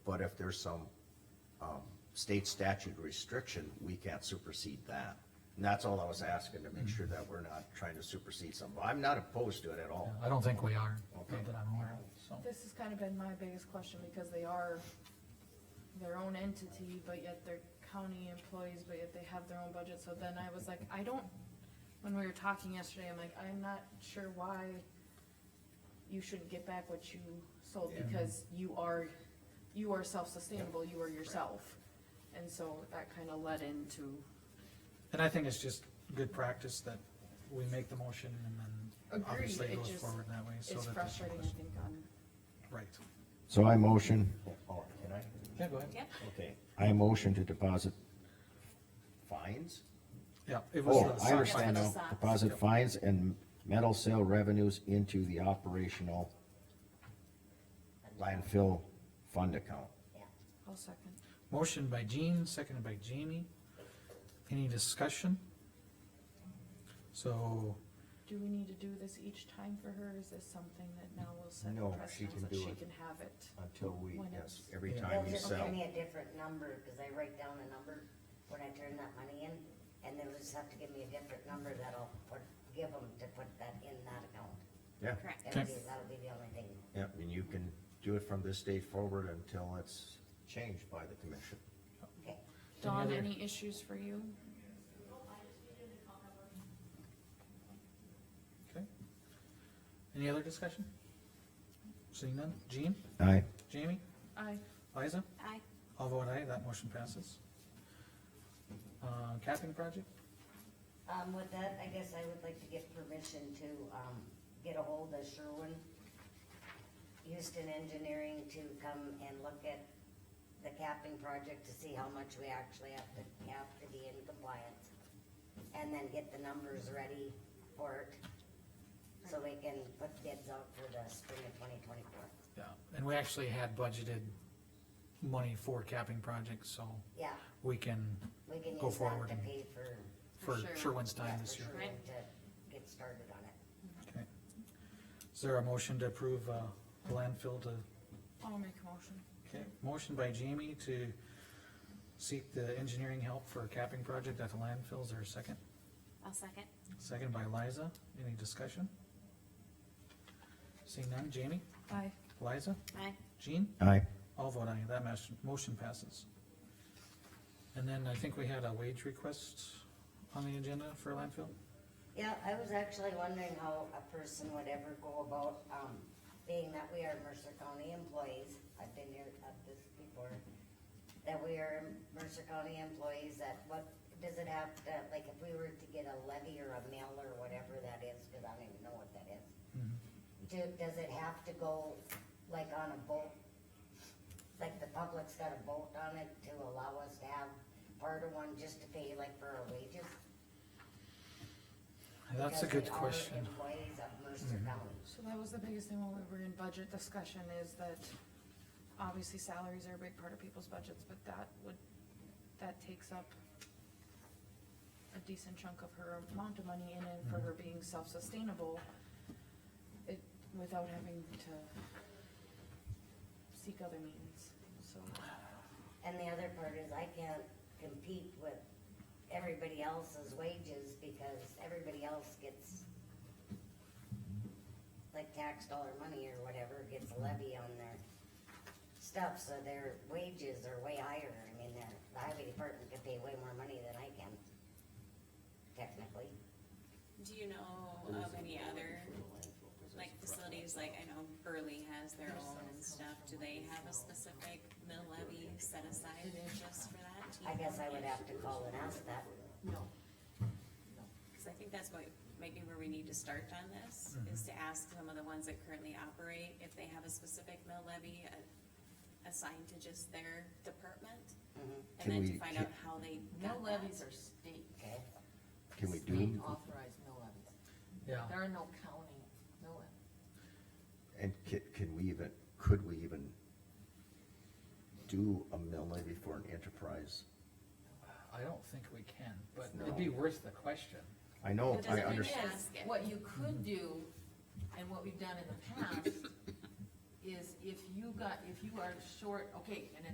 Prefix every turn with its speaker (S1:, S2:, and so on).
S1: But if there's some, um, state statute restriction, we can't supersede that. And that's all I was asking, to make sure that we're not trying to supersede something. I'm not opposed to it at all.
S2: I don't think we are, not
S1: Okay.
S2: that I'm aware of, so.
S3: This has kind of been my biggest question, because they are their own entity, but yet they're county employees, but yet they have their own budget, so then I was like, I don't, when we were talking yesterday, I'm like, I'm not sure why you shouldn't get back what you sold,
S1: Yeah.
S3: because you are, you are self-sustainable, you are yourself. And so that kind of led into,
S2: And I think it's just good practice that we make the motion and then
S3: Agreed,
S2: obviously it
S3: it
S2: goes
S3: just-
S2: forward that way, so that.
S3: it's
S2: there's no
S3: frustrating, I
S2: question.
S3: think, on,
S2: Right.
S1: So I motion. Oh, can I?
S2: Yeah, go ahead.
S4: Yeah.
S1: Okay, I motion to deposit fines?
S2: Yeah, it was
S1: Oh,
S2: the
S1: I
S2: soccer
S1: understand now,
S4: Yeah, it's the socks.
S1: deposit fines and metal sale revenues into the operational landfill fund account.
S4: Yeah.
S3: I'll second.
S2: Motion by Jean, seconded by Jamie. Any discussion? So,
S3: Do we need to do this each time for her, is this something that now will set
S1: No, she
S3: precedence
S1: can
S3: that
S1: do
S3: she
S1: it.
S3: can have it?
S1: Until we,
S3: When
S1: yes,
S3: it's-
S1: every
S2: Yeah.
S1: time
S4: They'll
S1: you
S4: just
S1: sell.
S4: give me a different number, cause I write down a number when I turn that money in, and they'll just have to give me a different number that'll put, give them to put that in that account.
S1: Yeah,
S4: Correct.
S2: Okay.
S4: That'll be, that'll be the only thing.
S1: yeah, and you can do it from this date forward until it's changed by the commission.
S4: Okay,
S3: Dawn,
S2: other-
S3: any issues for you?
S2: okay. Any other discussion? Seeing none? Jean,
S1: Aye.
S2: Jamie,
S3: I,
S2: Liza?
S4: Aye.
S2: I'll vote aye, that motion passes. Uh, capping project?
S4: um, with that, I guess I would like to get permission to, um, get a hold of Sherwin, Houston Engineering to come and look at the capping project to see how much we actually have to cap to be in compliance. And then get the numbers ready for it, so we can put bids out for the spring of twenty twenty-four.
S2: Yeah, and we actually had budgeted money for capping projects, so
S4: Yeah,
S2: we can,
S4: we can
S2: Go
S4: use that
S2: forward
S4: to
S2: and-
S4: pay for,
S2: for
S3: For sure.
S2: Sherwin's time
S4: yeah,
S2: this
S4: for
S2: year.
S4: Sherwin to get started on it.
S2: Okay. Is there a motion to approve, uh, the landfill to,
S3: I'll make a motion.
S2: okay, motion by Jamie to seek the engineering help for a capping project at the landfill, is there a second?
S5: I'll second.
S2: Second by Liza, any discussion? Seeing none, Jamie,
S3: Aye.
S2: Liza,
S5: Aye.
S2: Jean?
S1: Aye.
S2: All vote aye, that mas- motion passes. And then I think we had a wage request on the agenda for landfill?
S4: Yeah, I was actually wondering how a person would ever go about, um, being that we are Mercer County employees, I've been here at this before, that we are Mercer County employees, that what, does it have to, like, if we were to get a levy or a mill or whatever that is, cause I don't even know what that is. Do, does it have to go, like, on a boat? Like, the public's got a boat on it to allow us to have part of one just to pay, like, for our wages?
S2: That's a
S4: Because
S2: good
S4: we are
S2: question. Mm-hmm.
S4: Employees of Mercer County.
S3: So that was the biggest thing when we were in budget discussion is that obviously salaries are a big part of people's budgets, but that would, that takes up a decent chunk of her amount of money in and for her
S1: Mm-hmm.
S3: being self-sustainable. It, without having to seek other means, so.
S4: And the other part is I can't compete with everybody else's wages because everybody else gets like tax dollar money or whatever gets
S2: Mm-hmm.
S4: a levy on their stuff, so their wages are way higher. I mean, their, the highway department could pay way more money than I can, technically.
S5: Do you know of any other, like, facilities, like, I know Burley has their own and stuff, do they have a specific mill levy set aside just for that? Do you
S4: I guess
S5: know?
S4: I would have to call and ask that.
S3: No.
S5: Cause I think that's what, maybe where we need to start on this,
S1: Mm-hmm.
S5: is to ask some of the ones that currently operate, if they have a specific mill levy uh, assigned to just their department,
S4: Mhm,
S1: Can
S5: and then
S1: we-
S5: to find
S1: can-
S5: out how they
S6: No
S5: got that.
S6: levies are state.
S4: Okay,
S1: Can we
S6: State
S1: do,
S6: authorized mill levies.
S2: Yeah,
S6: There are no county mill levies.
S1: and can, can we even, could we even do a mill levy for an enterprise?
S2: I don't think we can, but it'd be worth the question.
S1: I know,
S5: It doesn't
S1: I
S5: really
S1: understand.
S5: Ask it.
S6: What you could do, and what we've done in the past, is if you got, if you are short, okay, and it